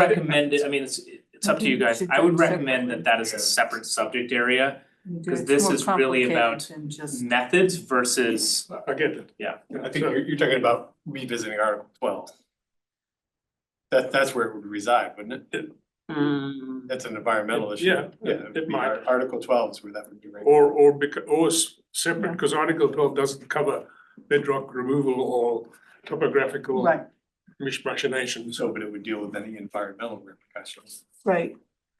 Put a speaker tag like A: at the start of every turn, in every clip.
A: recommend it, I mean, it's it's up to you guys, I would recommend that that is a separate subject area, because this is really about Mm. methods versus,
B: I get that.
A: Yeah.
B: I think you're, you're talking about revisiting Article twelve. That, that's where it would reside, wouldn't it? That's an environmental issue.
C: Yeah, it-
B: it'd
C: it
B: be
C: might.
B: Ar- Article twelve is where that would be. right.
C: Or, or because, or s- separate, because Article twelve doesn't cover bedrock removal or topographical
D: Right,
C: machinations.
B: So, but it would deal with any environmental repercussions.
D: right,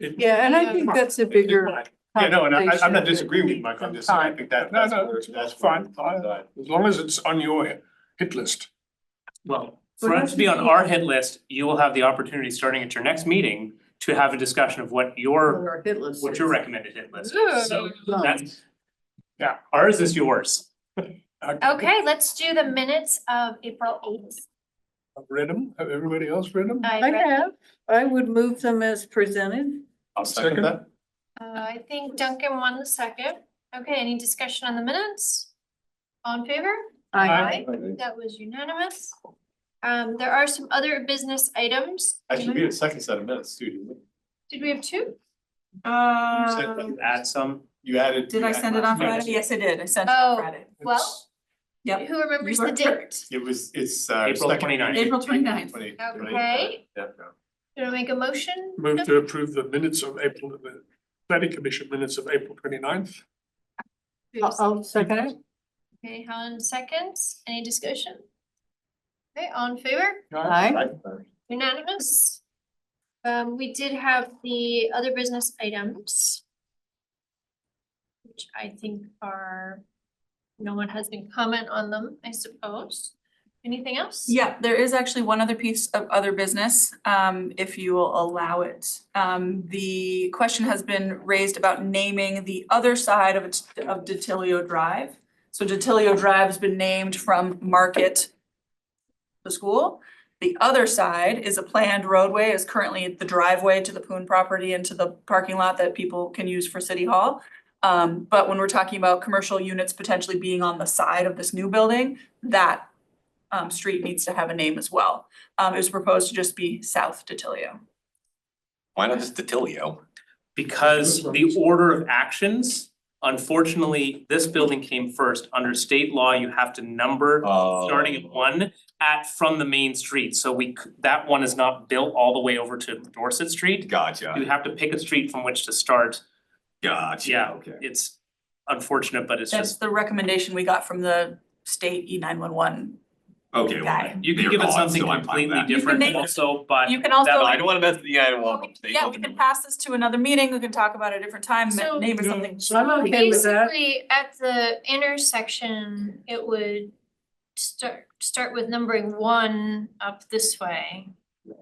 C: It-
D: yeah, and I
C: Yeah,
D: think
C: it
D: that's a
C: it
D: bigger
C: might.
B: Yeah, no, and I, I'm
D: conversation
B: not
D: that
B: disagreeing with
D: needs
B: Mike on
D: some
B: this, I
D: time.
B: think that,
C: No,
B: that's,
C: no,
B: where-
C: it's
B: that's where
C: fine,
B: it would reside.
C: As long as it's on your hit list.
A: well, for it to be on our hit list, you will have the opportunity, starting at your next meeting, to have a discussion of what your,
D: Or hit list
A: what
D: is.
A: your recommended hit list is, so that's,
C: Yeah.
A: ours is yours.
E: Okay, let's do the minutes of April eighth.
C: I've read them, have everybody else read them?
E: I
D: Um, I
E: read,
D: have, I would move them as presented.
B: I'll second
C: Second.
B: that.
E: uh, I think Duncan won the second. Okay, any discussion on the minutes? All in favor?
D: I,
E: That was unanimous. Um, there are some other business items.
B: Actually, we had a second set of minutes too, didn't we?
E: Did we have two?
D: um,
A: Add some,
B: You added.
F: Did
B: you
F: I
B: added
F: send it on
B: last
F: Friday?
B: minute.
F: Yes, I did. I sent it on
E: Oh.
F: Friday.
E: Well,
F: Yep.
E: who remembers
F: You
E: the
F: are
E: date?
B: It was, it's uh.
A: April
B: second
A: 29th.
B: meeting,
F: April 29th.
B: 20
E: Okay.
B: Yeah.
E: Do I make a motion?
C: Move to approve the minutes of April, the planning commission minutes of April 29th.
D: I'll I'll second it.
E: Okay, Helen seconds. Any discussion? Okay, all in favor?
D: Aye.
E: Unanimous. Um, we did have the other business items. Which I think are, no one has any comment on them, I suppose. Anything else?
F: Yeah, there is actually one other piece of other business, um, if you will allow it. Um, the question has been raised about naming the other side of, it- of Detilio Drive. So Detilio Drive's been named from Market, the school. The other side is a planned roadway, is currently the driveway to the Poon property and to the parking lot that people can use for City Hall. Um, but when we're talking about commercial units potentially being on the side of this new building, that um street needs to have a name as well. Um it was proposed to just be South Detilio.
G: Why not just Detilio?
A: because the order of actions, unfortunately, this building came first, under state law, you have to number starting
G: Um, Oh.
A: at one at from the main street, so we c- that one is not built all the way over to Dorset Street. You
G: Gotcha,
A: have to pick a street from which to start,
G: gotcha.
A: Yeah.
G: Okay.
A: it's unfortunate, but it's
F: That's
A: just,
F: the recommendation we got from the state E nine one one.
G: Okay, well,
F: Guy.
A: you can
G: they're
A: give it
G: gone,
A: something
G: so I'm fine with
A: completely
G: that.
F: You can
A: different
F: make-
A: also, but
F: You can
A: that
G: Well,
F: also,
G: I don't wanna mess with the animal.
F: yeah, we can pass this to another meeting, we can talk about it a different time,
E: So-
F: name or something.
D: I'm okay with that.
E: Basically, at the intersection, it would start, start with numbering one up this way.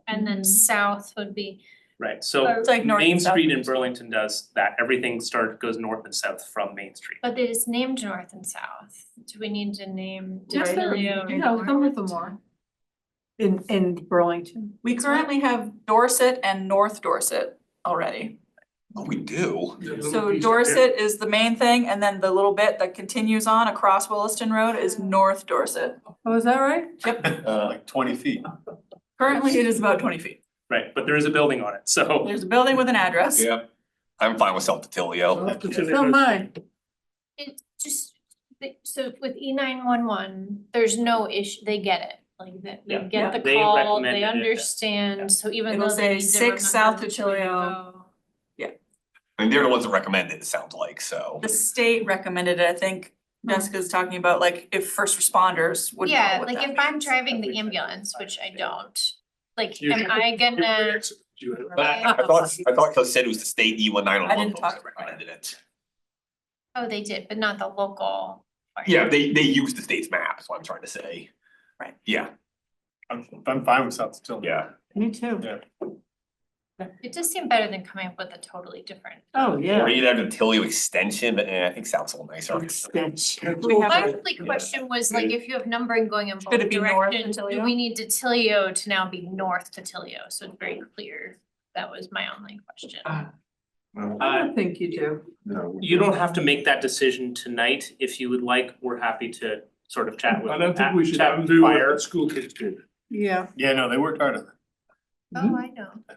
E: And then
D: Mm-hmm.
F: Mhm.
E: south would be,
A: right, so
F: It's like north
A: Main
F: and south.
A: Street in Burlington does that, everything start goes north and south from Main Street.
E: but it is named north and south. Do we need to name?
D: Just the-
E: Detilio
D: you know, go with the
E: north?
D: more. In in Burlington.
F: We currently have Dorset and North Dorset already.
G: Oh, we do?
C: The little
F: So
C: piece-
F: Dorset is the main thing and then the little bit that continues on across Williston Road is North Dorset.
D: Oh, is that right?
B: Uh, like twenty feet.
F: Currently, it is about twenty feet.
A: Right, but there is a building on it, so
F: There's a building with an address.
G: Yep. I'm fine with South Detilio.
C: South Detilio.
D: So mine.
E: It's just, the- so with E nine one one, there's no issue, they get it, like that, they
A: Yeah.
E: get the
A: They
E: call,
A: recommended it,
E: they
A: yeah.
E: understand, so even
F: It'll
E: though they
F: say
E: need to
F: six South
E: remember which way to
F: Tuchilio.
E: go.
G: I mean, they're the ones that recommend it, it sounds like, so.
F: The state recommended it, I think Jessica's talking about like if first responders would know
E: Mm. Yeah,
F: what
E: like
F: that
E: if I'm
F: means.
E: driving
C: Every
E: the
C: time.
E: ambulance, which I don't, like,
C: You
E: am
C: should-
E: I gonna?
C: You have-
G: But I I thought, I thought Coach said it was the state E one nine
F: I
G: one one
F: didn't
G: folks
F: talk
G: that
F: about it.
G: recommended it.
E: Oh, they did, but not the local. part.
G: Yeah, they, they use the state's map, is what I'm trying to say.
F: Right.
G: Yeah,
B: I'm, I'm fine with South Detilio.
G: yeah.
D: Me too.
E: It does seem better than coming up with a totally different.
D: Oh,
G: Or
D: yeah.
G: you'd have Detilio extension, but eh, I think sounds a little nicer.
D: Extension.
F: We have
E: My
F: a-
E: only
G: Yeah.
E: question was like, if you have numbering going in both
F: Should it be north
E: directions, do
F: Attilio?
E: we need Detilio to now be north Detilio? So it's very clear. That was my only question.
F: Uh,
D: I don't think you do.
A: you don't have to make that decision tonight. If you would like, we're happy to sort of chat with
C: I don't think we should
A: chat with
C: undo what
A: fire.
C: the school kids did.
D: Yeah,
B: Yeah, no, they worked hard on
E: Oh, I know.